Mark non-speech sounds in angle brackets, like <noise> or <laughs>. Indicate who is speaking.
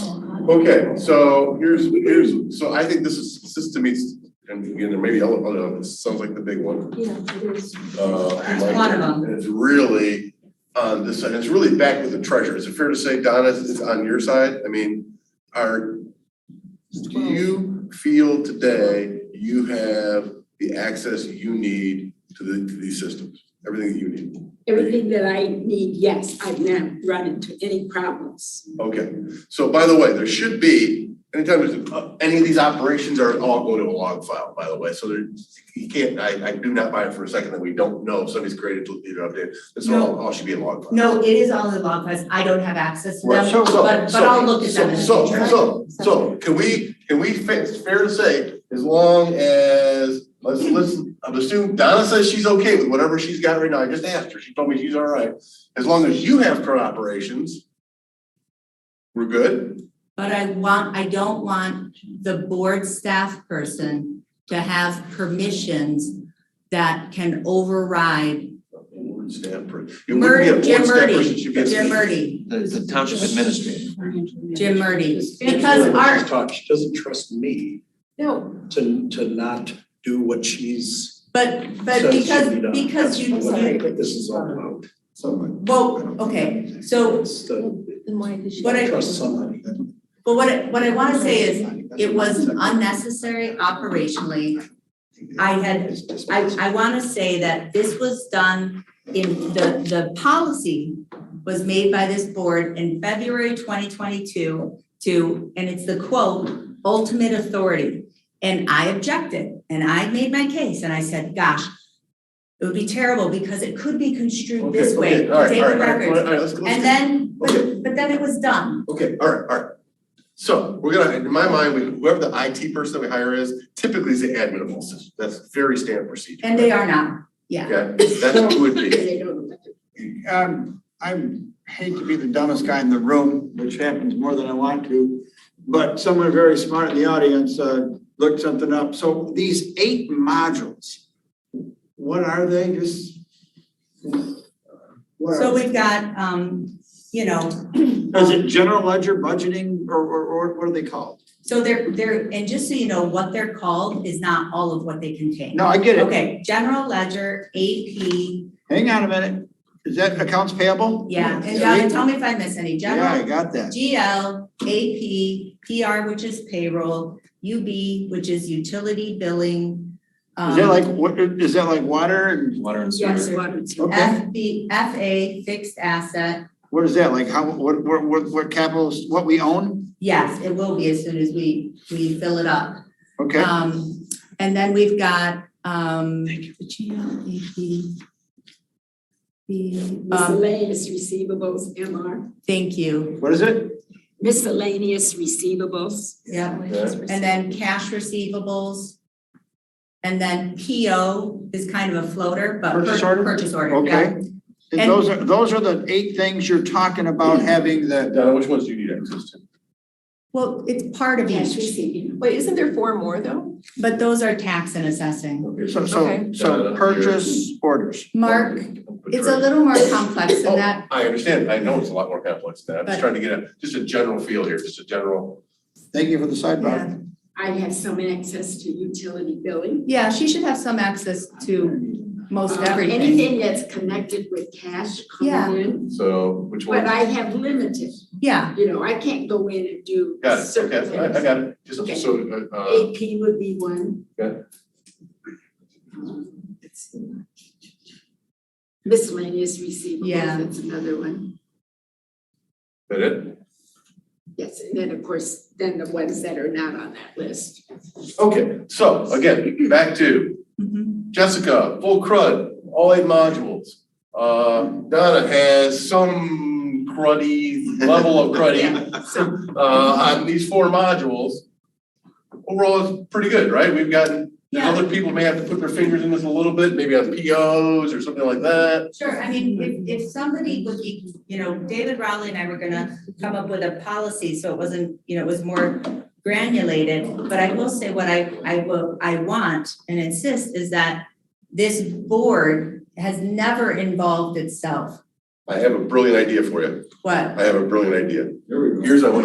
Speaker 1: Oh, uh,
Speaker 2: Okay, so here's, here's, so I think this is, this to me, is- and again, there may be other, other, this sounds like the big one.
Speaker 1: Yeah, it is.
Speaker 2: Uh,
Speaker 1: There's a lot of them.
Speaker 2: And it's really on this side, it's really back with the treasure. Is it fair to say, Donna, it's on your side? I mean, are, do you feel today you have the access you need to the, to these systems? Everything that you need?
Speaker 3: Everything that I need, yes, I've not run into any problems.
Speaker 2: Okay, so by the way, there should be, anytime there's, uh, any of these operations are all go to a log file, by the way, so there, you can't, I, I do not buy it for a second that we don't know if somebody's created a leader update, this all, all should be a log file.
Speaker 4: No, it is all in log files. I don't have access to
Speaker 2: Right,
Speaker 4: them,
Speaker 2: so- so-
Speaker 4: but, but
Speaker 2: so-
Speaker 4: I'll look at them. in the
Speaker 2: So,
Speaker 4: future.
Speaker 2: so, so, so, can we, can we, fa- it's fair to say, as long as, let's, let's, I'm assuming Donna says she's okay with whatever she's got right now, I just asked her, she told me she's all right. As long as you have current operations, we're good?
Speaker 4: But I want, I don't want the board staff person to have permissions that can override.
Speaker 2: Board staff per- You wouldn't be a
Speaker 4: Murdy,
Speaker 2: board
Speaker 4: Jim
Speaker 2: staff person,
Speaker 4: Murdy,
Speaker 2: she'd be a-
Speaker 4: Jim Murdy,
Speaker 5: The, the township administrator.
Speaker 4: Jim Murdy, because
Speaker 6: She's
Speaker 4: our,
Speaker 6: taught, she doesn't trust me
Speaker 1: No,
Speaker 6: to, to not do what she's
Speaker 4: but, but
Speaker 6: says should be
Speaker 4: because,
Speaker 6: done.
Speaker 4: because you,
Speaker 6: That's what I
Speaker 4: you,
Speaker 6: think this is all about.
Speaker 4: well, Oh, okay, so,
Speaker 6: It's the,
Speaker 1: then why did she?
Speaker 4: What I-
Speaker 6: trust somebody.
Speaker 4: but what I, what I wanna say is, it was unnecessary operationally. I had I, I wanna say that this was done in, the, the policy was made by this board in February twenty twenty-two to, and it's the quote, ultimate authority. And I objected, and I made my case, and I said, gosh, it would be terrible because it could be construed
Speaker 2: Okay,
Speaker 4: this way,
Speaker 2: okay, all right,
Speaker 4: take
Speaker 2: all
Speaker 4: the
Speaker 2: right, all right, all
Speaker 4: records.
Speaker 2: right, let's- let's-
Speaker 4: And then,
Speaker 2: Okay.
Speaker 4: but, but then it was done.
Speaker 2: Okay, all right, all right. So we're gonna, in my mind, we- whoever the IT person that we hire is typically is the admin of all systems. That's very standard procedure.
Speaker 4: And they are not, yeah.
Speaker 2: Okay, that's who it would be.
Speaker 7: Um, I hate to be the dumbest guy in the room, which happens more than I want to, but someone very smart in the audience, uh, looked something up. So these eight modules, what are they? Just? what are
Speaker 4: So
Speaker 7: they?
Speaker 4: we've got, um, you know,
Speaker 7: Is it general ledger budgeting or, or, or what are they called?
Speaker 4: So they're, they're, and just so you know, what they're called is not all of what they contain.
Speaker 7: No, I get it.
Speaker 4: Okay, general ledger, AP,
Speaker 7: Hang on a minute. Is that accounts payable?
Speaker 4: yeah, and
Speaker 7: Yeah,
Speaker 4: Donna, tell me if I miss any,
Speaker 7: Yeah, I
Speaker 4: general,
Speaker 7: got that.
Speaker 4: GL, AP, PR, which is payroll, UB, which is utility billing.
Speaker 7: Is that
Speaker 4: um,
Speaker 7: like, what, is that like water and,
Speaker 5: Water and sewer.
Speaker 3: Yes, water and sewer.
Speaker 7: okay,
Speaker 4: FB, FA, fixed asset,
Speaker 7: what is that? Like how, what, what, what, what capitals, what we own?
Speaker 4: yes, it will be as soon as we, we fill it up.
Speaker 7: Okay.
Speaker 4: Um, and then we've got, um, the GL, AP. The, um,
Speaker 3: Miscellaneous receivables, MR,
Speaker 4: Thank you.
Speaker 7: What is it?
Speaker 3: miscellaneous receivables.
Speaker 4: Yeah. And then cash receivables. And then PO is kind of a floater, but.
Speaker 7: Purchase
Speaker 4: pur-
Speaker 7: order?
Speaker 4: Purchase order, yeah.
Speaker 7: Okay. And those are, those are the eight things you're talking about having the,
Speaker 2: Donna, which ones do you need access to?
Speaker 4: Well, it's part of
Speaker 3: Cash
Speaker 4: each,
Speaker 3: receiving.
Speaker 1: Wait, isn't there four more though?
Speaker 4: but those are tax and assessing.
Speaker 2: Okay, so
Speaker 7: so, so,
Speaker 1: Okay.
Speaker 7: so purchase orders.
Speaker 4: Mark, it's a little more complex
Speaker 7: Oh.
Speaker 4: than that.
Speaker 2: I understand. I know it's a lot more complex than that. I'm just
Speaker 4: But-
Speaker 2: trying to get a, just a general feel here, just a general.
Speaker 7: Thank you for the
Speaker 4: Yeah.
Speaker 7: sidebar.
Speaker 3: I have some access to utility billing.
Speaker 4: Yeah, she should have some access to most
Speaker 3: Uh,
Speaker 4: everything.
Speaker 3: Anything that's connected with cash
Speaker 4: Yeah.
Speaker 3: coming in,
Speaker 2: So which one?
Speaker 3: but I have limited,
Speaker 4: Yeah,
Speaker 3: you know, I can't go in and do
Speaker 2: Got it,
Speaker 3: certain
Speaker 2: okay, I, I
Speaker 3: things.
Speaker 2: got it. Just
Speaker 3: Okay.
Speaker 2: so, uh, uh,
Speaker 3: AP would be one.
Speaker 2: Yeah.
Speaker 3: Um, Miscellaneous receivables,
Speaker 4: Yeah.
Speaker 3: that's another one.
Speaker 2: that it?
Speaker 3: Yes, and then of course, then the ones that are not on that list.
Speaker 2: Okay, so again, back to
Speaker 4: mhm.
Speaker 2: Mm-hmm. Jessica, full crud, all eight modules. Uh, Donna has some cruddy, level of
Speaker 3: <laughs>
Speaker 2: cruddy, uh, on these four modules. Overall, it's pretty good, right? We've gotten, and
Speaker 4: yeah,
Speaker 2: other people may have to put their fingers in this a little bit, maybe on POs or something like that.
Speaker 4: sure. I mean, if, if somebody would be, you know, David Rowley and I were gonna come up with a policy, so it wasn't, you know, it was more granulated, but I will say what I, I will, I want and insist is that this board has never involved itself,
Speaker 2: I have a brilliant idea for you.
Speaker 4: what?
Speaker 2: I have a brilliant idea.
Speaker 7: There we
Speaker 2: Here's what I want